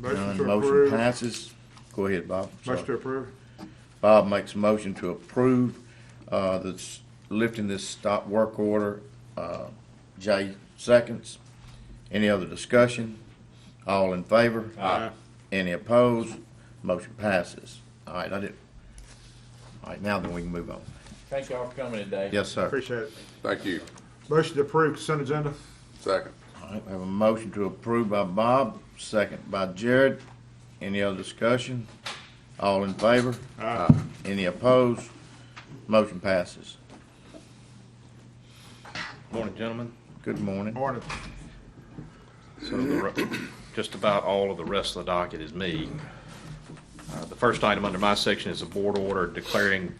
Motion None. to Motion approve. passes. Go ahead, Bob. Sorry. Motion to approve. Bob makes a motion to approve, uh, this, lifting this stop work order. Uh, Jay seconds. Any other discussion? All in favor? Aye. Any opposed? Motion passes. All right, I did. All right, now then we can move on. Thank y'all for coming today. Yes, sir. Appreciate it. Thank you. Motion to approve consent agenda. Second. All right, we have a motion to approve by Bob, second by Jared. Any other discussion? All in favor? Aye. Any opposed? Motion passes. Morning, gentlemen. Good morning. Morning. So the re- just about all of the rest of the docket is me. Uh, The first item under my section is a board order declaring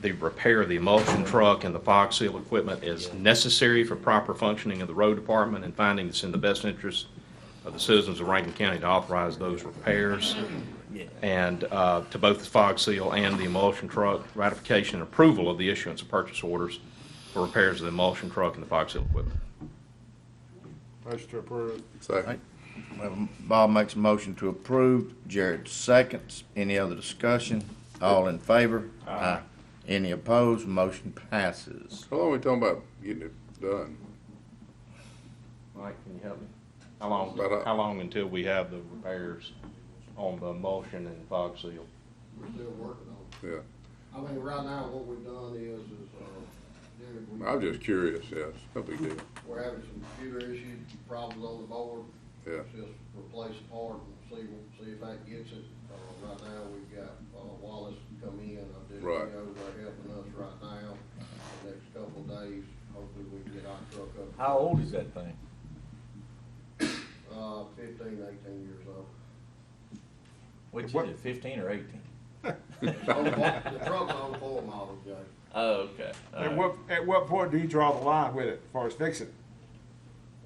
the repair of the emulsion truck and the fog seal equipment as necessary for proper functioning of the road department and finding it's in the best interest of the citizens of Rankin County to authorize those repairs. And uh, to both the fog seal and the emulsion truck, ratification and approval of the issuance of purchase orders for repairs of the emulsion truck and the fog seal equipment. Motion to approve. Second. Well, Bob makes a motion to approve, Jared seconds. Any other discussion? All in favor? Aye. Any opposed? Motion passes. How long are we talking about getting it done? Mike, can you help me? How long, About a- how long until we have the repairs on the emulsion and fog seal? We're still working on it. Yeah, I mean, right now, what we've done is, is, uh, Derek, we- I'm just curious, yes, no big deal, we're having some computer issue problems on the board. Yeah. Just replace a part and see, see if that gets it. Uh, right now, we've got, uh, Wallace come in, I did, Right. they're helping us right now. The next couple of days, hopefully we can get our truck up. How old is that thing? Uh, fifteen, eighteen years old. What'd you What- do, fifteen or eighteen? On what- Oh, The truck's on four model, Jay. Oh, okay. At what, at what point do you draw the line with it as far as fixing?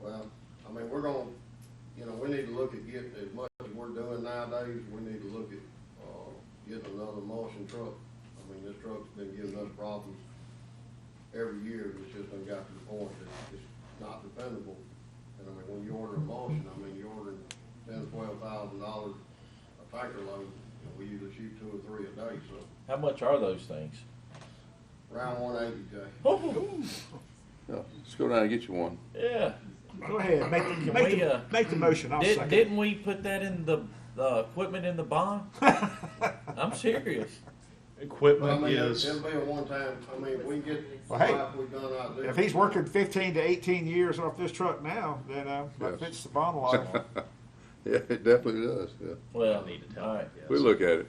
Well, I mean, we're gonna, you know, we need to look at getting, as much as we're doing nowadays, we need to look at, uh, getting another emulsion truck. I mean, this truck's been giving us problems every year, it's just done got to the point that it's not dependable. And I mean, when you order emulsion, I mean, you're ordering ten, twelve thousand dollars a tanker load, and we usually shoot two or three a day, so How much are those things? round one eighty, Jay. yeah, let's go down and get you one. Yeah. Go ahead, make the, Can make we, uh, the, make the motion, I'll Did, second. didn't we put that in the, uh, equipment in the bond? I'm serious. I Equipment mean, is, It'll be a one-time, I mean, if we can get, Well, hey, like we done out there. If he's working fifteen to eighteen years off this truck now, then, uh, that Yes. fits the bond law. Yeah, it definitely does, yeah, Well, I need to all tell right. him, we yes. look at it,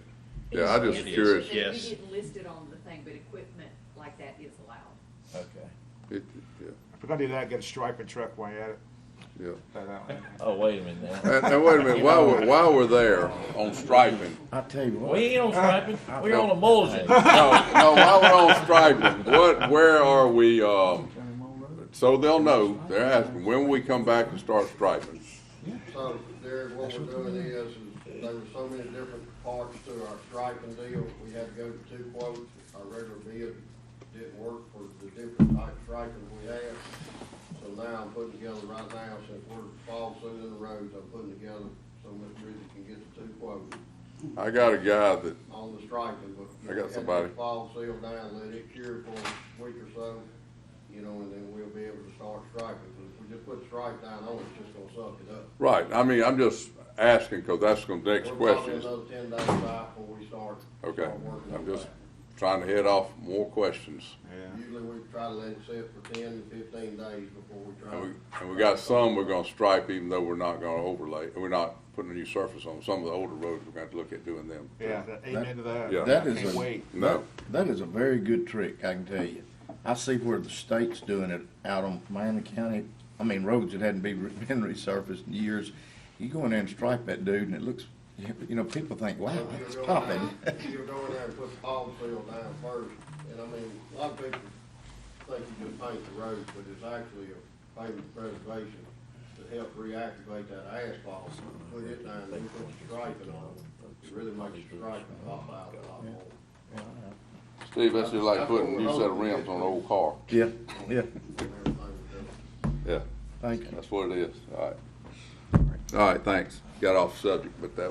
yeah, I'm just It is. curious, That Yes. We didn't list it on the thing, but equipment like that is allowed. Okay. it, yeah, If we're gonna do that, get a striping truck while you're at it, yeah. Throw that one in. Oh, wait a minute now. And, and wait a minute, while we're, while we're there on striping, I tell you We what, ain't on striping, we're on emulsion. no, no, while we're on striping, what, where are we, um, so they'll know, they're asking, when will we come back and start striping? So, Derek, what we're doing is, is there were so many different parts to our striping deal, we had to go to two quotes. Our regular bid didn't work for the different type of striping we had. So now I'm putting together right now, since we're fall soon in the roads, I'm putting together so Mr. Rizzi can get the two quotes I got a guy that on the striping, but. I got you know, somebody. get the Fall seal down, let it cure for a week or so, you know, and then we'll be able to start striping. But if we just put stripe down on it, it's just gonna suck it up. Right, I mean, I'm just asking, because that's the next We're question. probably is- another ten days out before we start. Okay, start working I'm on just that. trying to head off more questions. Usually we try to let it sit for ten to fifteen days before we try. And we, to- and we got some we're gonna stripe, even though we're not gonna overlay, we're not putting a new surface on. Some of the older roads, we're gonna have to look at doing them. yeah, that- amen to that. Yeah. that I is Can't a, wait. No, that is a very good trick, I can tell you. I see where the state's doing it out on Miami County, I mean, roads that hadn't been re- been resurfaced in years. You go in there and stripe that dude and it looks, you know, people think, wow, But that's you're going popping. down- You're going there and put the palm seal down first, and I mean, a lot of people think you just paint the road, but it's actually a pavement preservation to help reactivate that asphalt. Put it down, and then put the striping on it, it really makes the striping pop out a lot more. Steve, that's just like putting a new set of rims on an old car. Yeah, yeah, and everything we do. Yeah, thank you. that's what it is, all right. All right, thanks. Got off subject, but uh, that